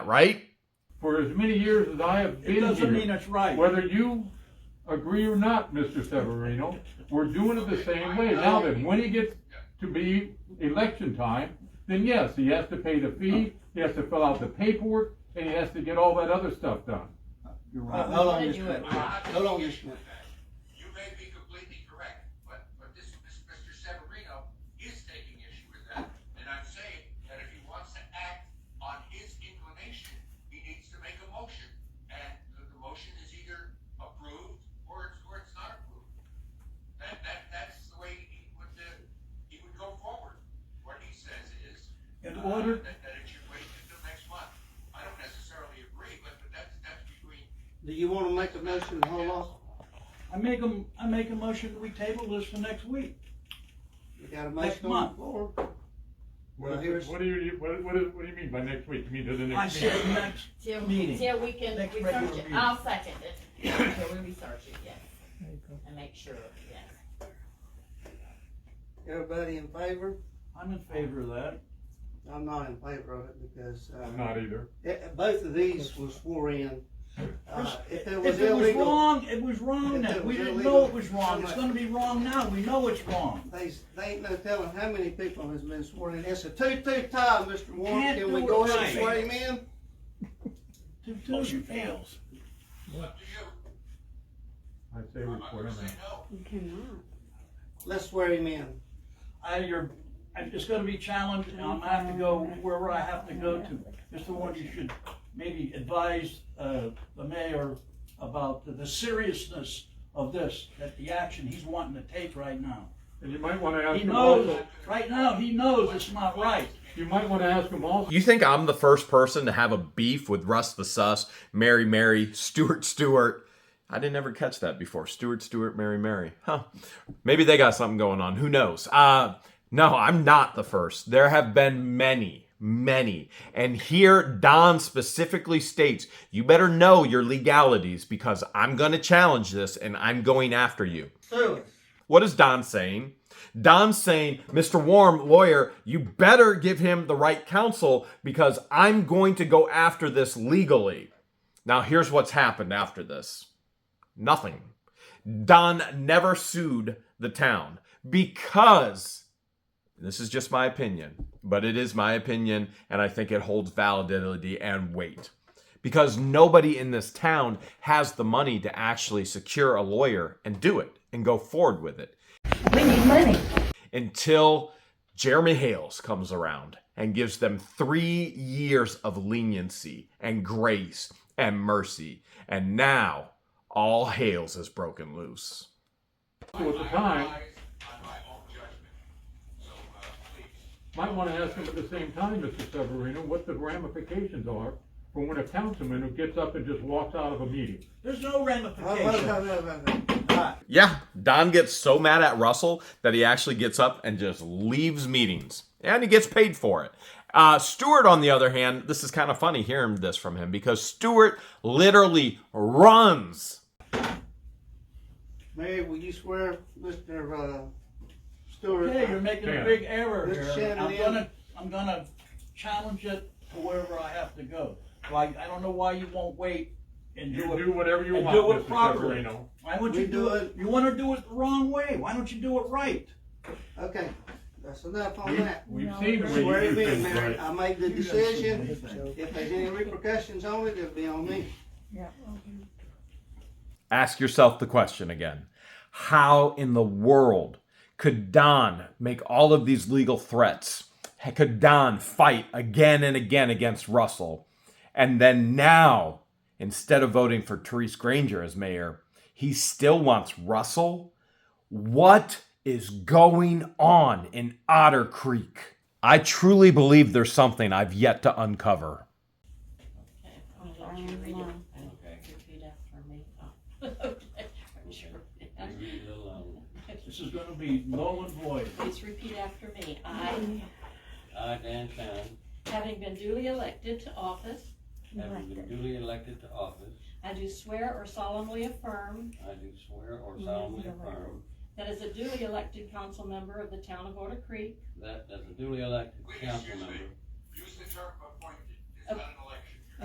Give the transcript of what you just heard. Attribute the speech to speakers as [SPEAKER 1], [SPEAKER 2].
[SPEAKER 1] right?
[SPEAKER 2] for as many years as I have
[SPEAKER 3] It
[SPEAKER 2] been
[SPEAKER 3] doesn't mean
[SPEAKER 2] here.
[SPEAKER 3] it's right.
[SPEAKER 2] Whether you agree or not, Mr. Severino, we're doing it the same way. Now then, when he gets to be election time, then yes, he has to pay the fee, he has to fill out the paperwork, and he has to get all that other stuff done.
[SPEAKER 3] You're
[SPEAKER 4] Uh,
[SPEAKER 3] right.
[SPEAKER 4] How long this took? How long this took?
[SPEAKER 5] You may be completely correct, but, but this, this Mr. Severino is taking issue with that. And I'm saying that if he wants to act on his inclination, he needs to make a motion. And the, the motion is either approved or it's, or it's not approved. That, that, that's the way he would, uh, he would go forward. What he says is.
[SPEAKER 3] In
[SPEAKER 5] uh,
[SPEAKER 3] order-
[SPEAKER 5] That, that it should wait until next month. I don't necessarily agree, but, but that's, that's between
[SPEAKER 4] Do you wanna make a motion to hold off?
[SPEAKER 3] I make a, I make a motion that we table this for next week.
[SPEAKER 4] We got a
[SPEAKER 3] Next
[SPEAKER 4] motion on the
[SPEAKER 3] month.
[SPEAKER 4] floor.
[SPEAKER 2] What,
[SPEAKER 4] Well, here's-
[SPEAKER 2] what do you, what, what do- what do you mean by next week? You mean to the
[SPEAKER 3] I
[SPEAKER 2] next
[SPEAKER 3] said
[SPEAKER 2] meeting?
[SPEAKER 3] next
[SPEAKER 6] Till,
[SPEAKER 3] Meeting.
[SPEAKER 6] till we can
[SPEAKER 3] Next
[SPEAKER 6] research
[SPEAKER 3] regular
[SPEAKER 6] it,
[SPEAKER 3] meeting.
[SPEAKER 6] I'll second it, till we research it, yes. And make sure, yes.
[SPEAKER 4] Everybody in favor?
[SPEAKER 3] I'm in favor of that.
[SPEAKER 4] I'm not in favor of it because,
[SPEAKER 2] I'm
[SPEAKER 4] uh,
[SPEAKER 2] Not either.
[SPEAKER 4] it- both of these were swore in. Uh, if it was
[SPEAKER 3] If it was
[SPEAKER 4] illegal,
[SPEAKER 3] wrong, it was wrong
[SPEAKER 4] If it
[SPEAKER 3] then. We
[SPEAKER 4] was
[SPEAKER 3] didn't
[SPEAKER 4] illegal,
[SPEAKER 3] know it was wrong. It's
[SPEAKER 4] so
[SPEAKER 3] gonna be wrong now. We know it's wrong.
[SPEAKER 4] they, they ain't no telling how many people has been sworn in. It's a two-two tie, Mr. Warren.
[SPEAKER 3] Can't
[SPEAKER 4] Can we
[SPEAKER 3] do
[SPEAKER 4] go
[SPEAKER 3] it
[SPEAKER 4] ahead and
[SPEAKER 3] right.
[SPEAKER 4] swear him in?
[SPEAKER 3] Two, two, fails.
[SPEAKER 5] up to you.
[SPEAKER 2] I say we
[SPEAKER 5] I'm
[SPEAKER 2] put
[SPEAKER 5] gonna
[SPEAKER 2] him
[SPEAKER 5] say
[SPEAKER 2] in.
[SPEAKER 5] no.
[SPEAKER 4] Let's swear him in.
[SPEAKER 3] I, you're, I- it's gonna be challenged and I'm gonna have to go wherever I have to go to. Mr. Warren, you should maybe advise, uh, the mayor about the- the seriousness of this, that the action he's wanting to take right now.
[SPEAKER 2] And you might wanna ask
[SPEAKER 3] He
[SPEAKER 2] him
[SPEAKER 3] knows,
[SPEAKER 2] also,
[SPEAKER 3] right now, he knows it's not right.
[SPEAKER 2] you might wanna ask him also.
[SPEAKER 1] You think I'm the first person to have a beef with Russ the Sus, Mary Mary, Stuart Stewart? I didn't ever catch that before. Stuart Stewart, Mary Mary. Huh. Maybe they got something going on. Who knows? Uh no, I'm not the first. There have been many, many. And here Don specifically states, you better know your legalities because I'm going to challenge this and I'm going after you.
[SPEAKER 4] Do it.
[SPEAKER 1] What is Don saying? Don's saying, Mr. Warm, lawyer, you better give him the right counsel because I'm going to go after this legally. Now, here's what's happened after this nothing. Don never sued the town because this is just my opinion, but it is my opinion, and I think it holds validity and weight. Because nobody in this town has the money to actually secure a lawyer and do it and go forward with it
[SPEAKER 7] We need money.
[SPEAKER 1] until Jeremy Hales comes around and gives them three years of leniency and grace and mercy. And now all Hales is broken loose.
[SPEAKER 2] So at the time,
[SPEAKER 5] relies on my own judgment. So, uh, please.
[SPEAKER 2] Might want to ask him at the same time, Mr. Severino, what the ramifications are for when a councilman who gets up and just walks out of a meeting.
[SPEAKER 3] There's no
[SPEAKER 4] Wait, wait,
[SPEAKER 3] ramification.
[SPEAKER 4] wait, wait, wait, wait. All right.
[SPEAKER 1] Yeah, Don gets so mad at Russell that he actually gets up and just leaves meetings. And he gets paid for it. Uh, Stewart, on the other hand, this is kind of funny hearing this from him because Stewart literally runs.
[SPEAKER 4] Mary, will you swear, Mr. uh, Stewart?
[SPEAKER 3] Okay, you're making a big error
[SPEAKER 4] Mr.
[SPEAKER 3] here. I'm
[SPEAKER 4] Shanahan.
[SPEAKER 3] gonna, I'm gonna challenge it to wherever I have to go. Like, I don't know why you won't wait and
[SPEAKER 2] You
[SPEAKER 3] do
[SPEAKER 2] do
[SPEAKER 3] it,
[SPEAKER 2] whatever you
[SPEAKER 3] and
[SPEAKER 2] want,
[SPEAKER 3] do it
[SPEAKER 2] Mr.
[SPEAKER 3] properly.
[SPEAKER 2] Severino.
[SPEAKER 3] Why don't
[SPEAKER 4] We
[SPEAKER 3] you
[SPEAKER 4] do
[SPEAKER 3] do it,
[SPEAKER 4] it-
[SPEAKER 3] you wanna do it the wrong way, why don't you do it right?
[SPEAKER 4] Okay, that's enough on
[SPEAKER 2] We've,
[SPEAKER 4] that.
[SPEAKER 2] we've seen the
[SPEAKER 4] Swear
[SPEAKER 2] way you
[SPEAKER 4] him
[SPEAKER 2] do
[SPEAKER 4] in,
[SPEAKER 2] things,
[SPEAKER 4] Mary.
[SPEAKER 2] right?
[SPEAKER 4] I made the
[SPEAKER 3] You don't see
[SPEAKER 4] decision.
[SPEAKER 3] anything.
[SPEAKER 4] If there's any repercussions on it, it'll be on me.
[SPEAKER 7] Yeah. okay.
[SPEAKER 1] Ask yourself the question again How in the world could Don make all of these legal threats? Could Don fight again and again against Russell? And then now, instead of voting for Therese Granger as mayor, he still wants Russell? What is going on in Otter Creek? I truly believe there's something I've yet to uncover.
[SPEAKER 6] Okay, I'll let you read it, and repeat after me. Oh, okay, I'm sure.
[SPEAKER 3] This is gonna be null and void.
[SPEAKER 6] Please repeat after me, I,
[SPEAKER 8] I, Dan Shannon,
[SPEAKER 6] having been duly elected to office,
[SPEAKER 8] having been duly elected to office,
[SPEAKER 6] I do swear or solemnly affirm
[SPEAKER 8] I do swear or solemnly affirm
[SPEAKER 6] that as a duly elected council member of the town of Otter Creek,
[SPEAKER 8] that as a duly elected
[SPEAKER 5] Wait,
[SPEAKER 8] council
[SPEAKER 5] excuse me.
[SPEAKER 8] member,
[SPEAKER 5] Use the term appointed. It's not an